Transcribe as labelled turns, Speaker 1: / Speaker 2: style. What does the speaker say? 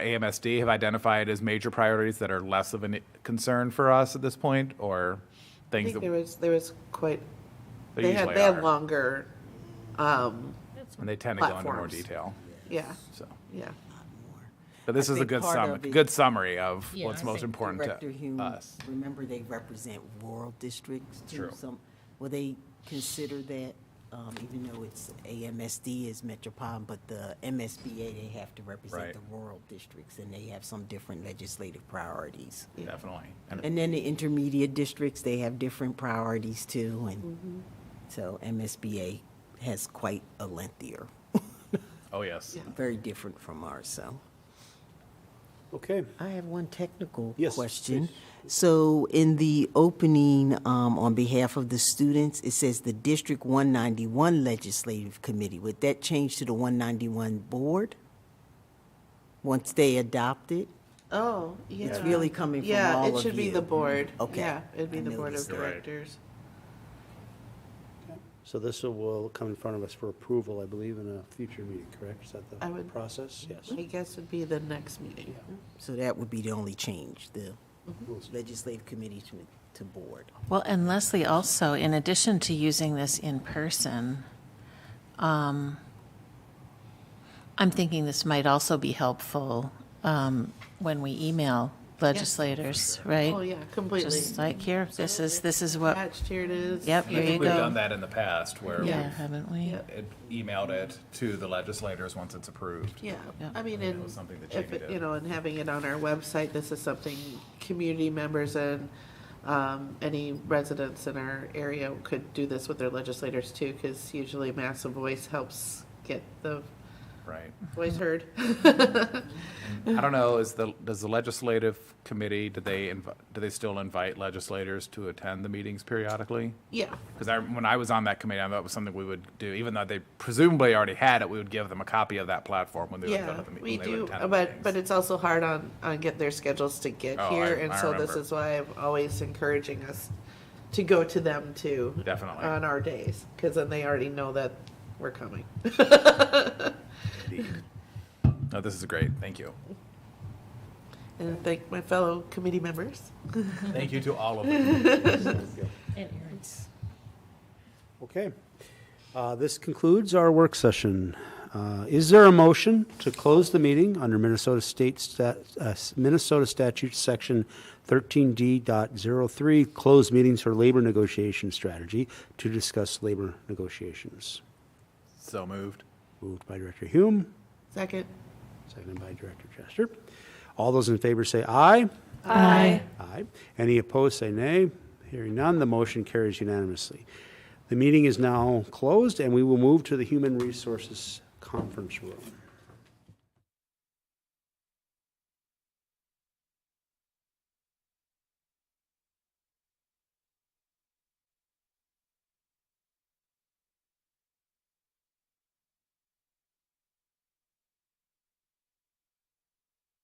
Speaker 1: AMSD have identified as major priorities that are less of a concern for us at this point, or
Speaker 2: I
Speaker 1: things
Speaker 2: think
Speaker 1: that
Speaker 2: there was, there was quite,
Speaker 1: there
Speaker 2: they had,
Speaker 1: usually
Speaker 2: they had
Speaker 1: are,
Speaker 2: longer, um,
Speaker 1: and they tend to go into more
Speaker 2: platforms.
Speaker 1: detail.
Speaker 2: yeah,
Speaker 1: So,
Speaker 2: yeah.
Speaker 1: but this
Speaker 3: I
Speaker 1: is a
Speaker 3: think
Speaker 1: good
Speaker 3: part
Speaker 1: sum,
Speaker 3: of the-
Speaker 1: good summary of
Speaker 3: Yeah,
Speaker 1: what's
Speaker 3: I
Speaker 1: most
Speaker 3: think
Speaker 1: important
Speaker 3: Director Hume,
Speaker 1: to us.
Speaker 3: Remember, they represent rural districts too.
Speaker 1: True.
Speaker 3: Some, will they consider that, um, even though it's AMSD is metropolitan, but the MSBA, they have to
Speaker 1: Right.
Speaker 3: represent the rural districts and they have some different legislative priorities.
Speaker 1: Definitely. And
Speaker 3: And then the intermediate districts, they have different priorities too. And so MSBA has quite a lengthier,
Speaker 1: oh yes,
Speaker 3: very different from ours, so.
Speaker 4: Okay,
Speaker 3: I have one technical
Speaker 4: Yes,
Speaker 3: question. So in the opening, um, on behalf of the students, it says the District 191 Legislative Committee. Would that change to the 191 Board? Once they adopt it?
Speaker 2: Oh, yeah.
Speaker 3: It's really coming from all
Speaker 2: Yeah, it
Speaker 3: of
Speaker 2: should be the
Speaker 3: you.
Speaker 2: board.
Speaker 3: Okay.
Speaker 2: Yeah, it'd be
Speaker 3: I
Speaker 2: the
Speaker 3: knew
Speaker 2: board
Speaker 3: this.
Speaker 2: of
Speaker 1: You're right.
Speaker 2: directors.
Speaker 4: so this will come in front of us for approval, I believe, in a future meeting, correct? Is that
Speaker 2: I
Speaker 4: the
Speaker 2: would-
Speaker 4: process? Yes.
Speaker 2: I guess it'd be the next meeting.
Speaker 3: So that would be the only change, the Legislative Committee to, to Board.
Speaker 5: Well, and Leslie, also, in addition to using this in person, um, I'm thinking this might also be helpful um, when we email legislators,
Speaker 2: Oh,
Speaker 5: right?
Speaker 2: yeah, completely.
Speaker 5: Just like, here, this is, this is what,
Speaker 2: Attached, here it is.
Speaker 5: yep,
Speaker 1: I
Speaker 5: here you
Speaker 1: think we've done
Speaker 5: go.
Speaker 1: that in the past where
Speaker 5: Yeah,
Speaker 1: we've
Speaker 2: Yeah.
Speaker 5: haven't we?
Speaker 2: Yep.
Speaker 1: it- emailed it to the legislators once it's approved.
Speaker 2: Yeah,
Speaker 5: Yeah.
Speaker 2: I mean,
Speaker 1: That
Speaker 2: and
Speaker 1: was something that
Speaker 2: if,
Speaker 1: Jamie
Speaker 2: it-
Speaker 1: did.
Speaker 2: you know, and having it on our website, this is something community members and um, any residents in our area could do this with their legislators too, because usually Massive Voice helps get the
Speaker 1: Right.
Speaker 2: voice heard.
Speaker 1: I don't know, is the, does the legislative committee, do they, inv- do they still invite legislators to attend the meetings periodically?
Speaker 2: Yeah,
Speaker 1: Because I, when I was on that committee, I thought it was something we would do, even though they presumably already had it, we would give them a copy of that platform when they would go
Speaker 2: yeah,
Speaker 1: to the meeting.
Speaker 2: we do, but, but it's also hard on, on getting their schedules to get
Speaker 1: Oh, I-
Speaker 2: here. And
Speaker 1: I
Speaker 2: so this
Speaker 1: remember.
Speaker 2: is why I'm always encouraging us to go to them too.
Speaker 1: Definitely.
Speaker 2: On our days, because then they already know that we're coming.
Speaker 1: No, this is great, thank you.
Speaker 2: And thank my fellow committee members.
Speaker 1: Thank you to all of you.
Speaker 4: Okay. Uh, This concludes our work session. Uh, Is there a motion to close the meeting under Minnesota State, Stat- uh, Minnesota Statute Section 13D.03, close meetings for labor negotiation strategy to discuss labor negotiations?
Speaker 1: So moved.
Speaker 4: Moved by Director Hume,
Speaker 2: Second.
Speaker 4: seconded by Director Chester. All those in favor say aye.
Speaker 2: Aye.
Speaker 4: Aye. Any opposed, say nay. Hearing none, the motion carries unanimously. The meeting is now closed, and we will move to the Human Resources Conference Room.